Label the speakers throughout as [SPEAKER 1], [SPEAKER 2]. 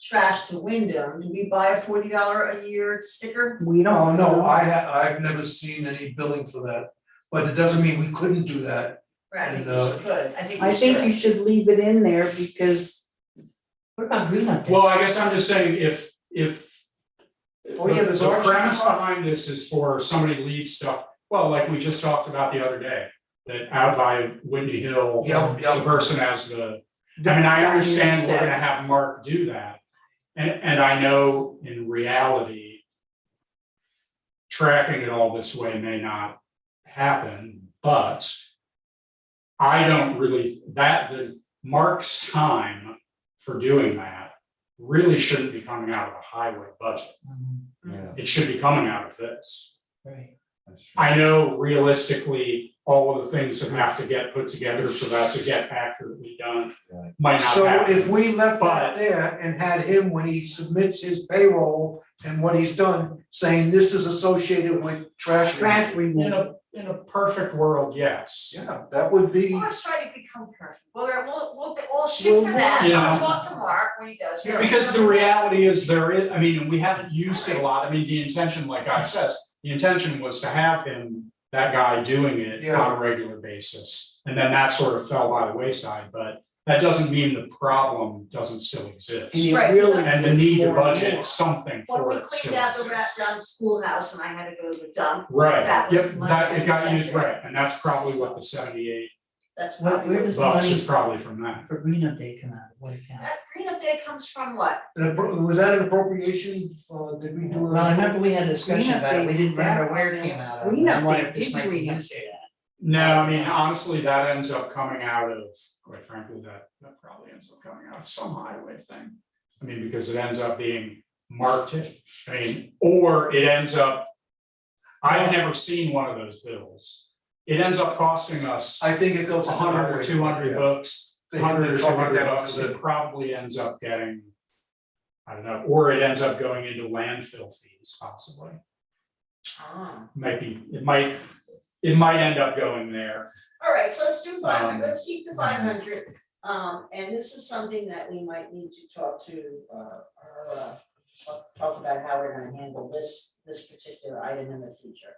[SPEAKER 1] trash to Wyndham, do we buy a forty dollar a year sticker?
[SPEAKER 2] We
[SPEAKER 3] No,
[SPEAKER 2] don't.
[SPEAKER 3] Oh, no, I ha- I've never seen any billing for that, but it doesn't mean we couldn't do that.
[SPEAKER 1] Right, I think
[SPEAKER 3] No.
[SPEAKER 1] you should, I think
[SPEAKER 2] I
[SPEAKER 1] you should.
[SPEAKER 2] think you should leave it in there because
[SPEAKER 4] What about Greenland Day?
[SPEAKER 5] Well, I guess I'm just saying if if.
[SPEAKER 4] Oh, yeah,
[SPEAKER 5] the-
[SPEAKER 4] there's
[SPEAKER 5] The
[SPEAKER 4] our-
[SPEAKER 5] premise behind this is for somebody leaves stuff, well, like we just talked about the other day, that out by Windy Hill.
[SPEAKER 3] Yeah, yeah.
[SPEAKER 5] The person has the, I mean, I understand we're gonna have Mark do that. And and I know in reality. Tracking it all this way may not happen, but. I don't really, that the Mark's time for doing that really shouldn't be coming out of the highway budget.
[SPEAKER 4] Mhm,
[SPEAKER 1] Yeah.
[SPEAKER 5] It should be coming out of this.
[SPEAKER 4] Right,
[SPEAKER 5] I know realistically, all of the things that have to get put together for that to get accurately done
[SPEAKER 6] Right.
[SPEAKER 5] might not
[SPEAKER 3] So if
[SPEAKER 5] happen.
[SPEAKER 3] we left
[SPEAKER 5] But-
[SPEAKER 3] that there and had him, when he submits his payroll and what he's done, saying this is associated with trash.
[SPEAKER 2] trash
[SPEAKER 3] removal.
[SPEAKER 5] In
[SPEAKER 2] removal.
[SPEAKER 5] a, in a perfect world, yes.
[SPEAKER 3] Yeah, that would be.
[SPEAKER 1] Well, Let's try to become perfect, we'll, we'll, we'll, we'll shoot for that,
[SPEAKER 5] Yeah.
[SPEAKER 1] I'll talk to Mark when he does. it.
[SPEAKER 5] Because the reality is there is, I mean, and we haven't used it a lot. I mean, the intention, like I says, the intention was to have him, that guy doing it on a regular basis. And then that sort of fell by the wayside, but that doesn't mean the problem doesn't still exist.
[SPEAKER 2] And it
[SPEAKER 1] Right.
[SPEAKER 2] really
[SPEAKER 5] And the
[SPEAKER 2] is
[SPEAKER 5] need to
[SPEAKER 2] more and
[SPEAKER 5] budget
[SPEAKER 2] more.
[SPEAKER 5] something
[SPEAKER 1] When
[SPEAKER 5] for
[SPEAKER 1] we
[SPEAKER 5] it still
[SPEAKER 1] cleaned out the wrapped
[SPEAKER 5] exists.
[SPEAKER 1] around schoolhouse and I had to go to the dump, That
[SPEAKER 5] Right,
[SPEAKER 1] was
[SPEAKER 5] yep,
[SPEAKER 1] my
[SPEAKER 5] that, it got used
[SPEAKER 1] understanding.
[SPEAKER 5] right, and that's probably what the seventy-eight
[SPEAKER 1] that's
[SPEAKER 4] where,
[SPEAKER 1] probably.
[SPEAKER 4] where does the
[SPEAKER 5] bucks
[SPEAKER 4] money
[SPEAKER 5] is probably from that.
[SPEAKER 4] for Greenland Day come out, of? what account?
[SPEAKER 1] That cleanup day comes from what?
[SPEAKER 3] An appro- Was that an appropriation, uh, did we do? a-
[SPEAKER 4] Well, I remember we had a discussion
[SPEAKER 2] Greenup
[SPEAKER 4] about it, we
[SPEAKER 2] Day
[SPEAKER 4] didn't
[SPEAKER 2] did that.
[SPEAKER 4] remember where it came out of, and I
[SPEAKER 2] Greenup
[SPEAKER 4] wondered
[SPEAKER 2] Day
[SPEAKER 4] if this
[SPEAKER 2] did
[SPEAKER 4] might be
[SPEAKER 2] Greenup
[SPEAKER 4] next
[SPEAKER 2] Day.
[SPEAKER 4] year.
[SPEAKER 5] No, I mean, honestly, that ends up coming out of, quite frankly, that, that probably ends up coming out of some highway thing. I mean, because it ends up being marked, I mean, or it ends up. I've never seen one of those bills. It ends up costing us
[SPEAKER 3] I think it goes.
[SPEAKER 5] a hundred or two hundred bucks,
[SPEAKER 3] Yeah.
[SPEAKER 5] hundred or two hundred
[SPEAKER 3] They-
[SPEAKER 5] bucks, it probably ends up getting. I don't know, or it ends up going into landfill fees possibly, might be, it might, it might end up going there.
[SPEAKER 1] All right, so let's do five
[SPEAKER 5] Um,
[SPEAKER 1] hundred, let's keep the five hundred, um, and this is something that we might need to talk to, uh, our, uh, talk- talk about how we're gonna handle this, this particular item in the future.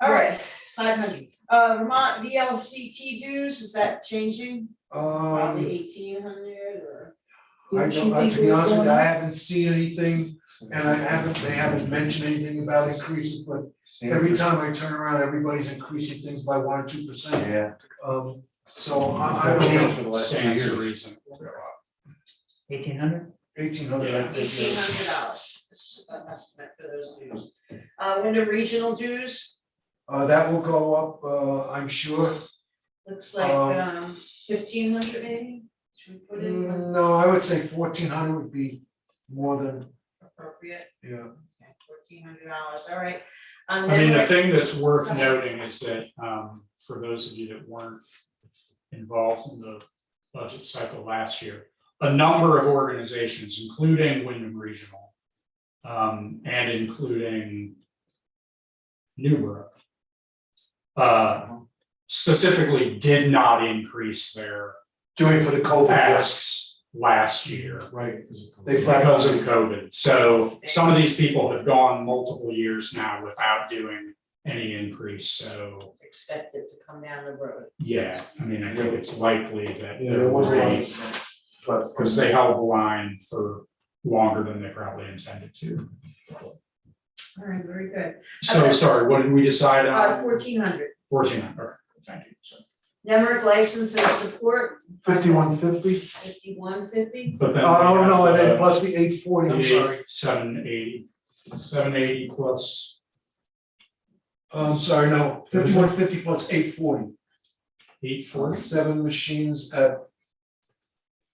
[SPEAKER 1] All right, five hundred, uh, Vermont VLCT dues, is that changing,
[SPEAKER 3] Um,
[SPEAKER 1] probably eighteen hundred or?
[SPEAKER 3] I
[SPEAKER 2] Didn't you
[SPEAKER 3] don't, I-
[SPEAKER 2] think
[SPEAKER 3] to
[SPEAKER 2] it
[SPEAKER 3] be
[SPEAKER 2] was
[SPEAKER 3] honest with you,
[SPEAKER 2] going
[SPEAKER 3] I
[SPEAKER 2] up?
[SPEAKER 3] haven't seen anything, and I haven't, they haven't mentioned anything about increases, but every time I turn around, everybody's increasing things by one or two percent.
[SPEAKER 6] Yeah.
[SPEAKER 3] Um, so
[SPEAKER 5] I
[SPEAKER 3] I, I
[SPEAKER 5] don't
[SPEAKER 3] don't know,
[SPEAKER 6] for the
[SPEAKER 5] know,
[SPEAKER 6] last few
[SPEAKER 5] stands to
[SPEAKER 6] years.
[SPEAKER 5] reason.
[SPEAKER 4] Eighteen hundred?
[SPEAKER 3] eighteen hundred, I think.
[SPEAKER 1] Eighteen hundred dollars, this is an estimate for those dues. Uh, winter regional dues,
[SPEAKER 3] Uh, that will go up, uh, I'm sure.
[SPEAKER 1] looks like,
[SPEAKER 3] Um,
[SPEAKER 1] um, fifteen hundred maybe, should we put in
[SPEAKER 3] Mm, No, I would say fourteen hundred would be more than,
[SPEAKER 1] appropriate?
[SPEAKER 3] yeah,
[SPEAKER 1] Fourteen hundred dollars, all right. Um,
[SPEAKER 5] I mean, the
[SPEAKER 1] then
[SPEAKER 5] thing that's worth noting is that, um, for those of you that weren't involved in the budget cycle last year, a number of organizations, including Wyndham Regional, um, and including Newbrook, uh, specifically did not increase their
[SPEAKER 3] doing for the COVID, yes,
[SPEAKER 5] asks last year.
[SPEAKER 3] right. They filed,
[SPEAKER 5] because of COVID. So some of these people have gone multiple years now without doing any increase. So,
[SPEAKER 1] Expect it to come down the road.
[SPEAKER 5] yeah, I mean, I think it's likely that
[SPEAKER 3] yeah, there
[SPEAKER 5] there
[SPEAKER 3] was
[SPEAKER 5] will
[SPEAKER 3] one.
[SPEAKER 5] be, because they held the line for longer than they probably intended to.
[SPEAKER 1] All right, very good.
[SPEAKER 5] So, sorry, what did we decide
[SPEAKER 1] Uh,
[SPEAKER 5] on?
[SPEAKER 1] fourteen hundred,
[SPEAKER 5] Fourteen, okay, thank you. So-
[SPEAKER 1] Nemrick license and support,
[SPEAKER 3] Fifty-one fifty?
[SPEAKER 1] fifty-one fifty.
[SPEAKER 5] But then. we
[SPEAKER 3] Oh,
[SPEAKER 5] have
[SPEAKER 3] no, and
[SPEAKER 5] the-
[SPEAKER 3] then plus the eight forty, I'm sorry.
[SPEAKER 5] The seven eighty, seven eighty plus,
[SPEAKER 3] Oh, I'm sorry, no, fifty-one fifty plus eight forty.
[SPEAKER 5] eight
[SPEAKER 3] Seven
[SPEAKER 5] forty,
[SPEAKER 3] machines at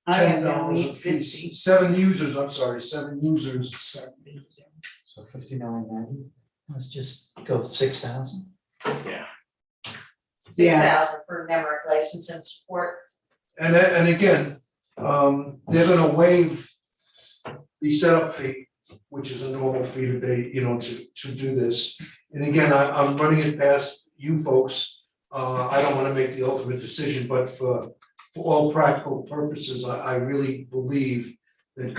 [SPEAKER 2] I
[SPEAKER 3] ten
[SPEAKER 2] have now
[SPEAKER 3] dollars a
[SPEAKER 2] eight fifty.
[SPEAKER 3] piece, seven users, I'm sorry, seven users.
[SPEAKER 5] seven eighty,
[SPEAKER 6] So fifty-nine ninety?
[SPEAKER 4] Let's just go six thousand.
[SPEAKER 5] yeah.
[SPEAKER 1] Six
[SPEAKER 2] Yeah.
[SPEAKER 1] thousand for Nemrick license and support.
[SPEAKER 3] And a- and again, um, they're gonna waive the setup fee, which is a normal fee that they, you know, to to do this. And again, I I'm running it past you folks, uh, I don't wanna make the ultimate decision, but for for all practical purposes, I I really believe that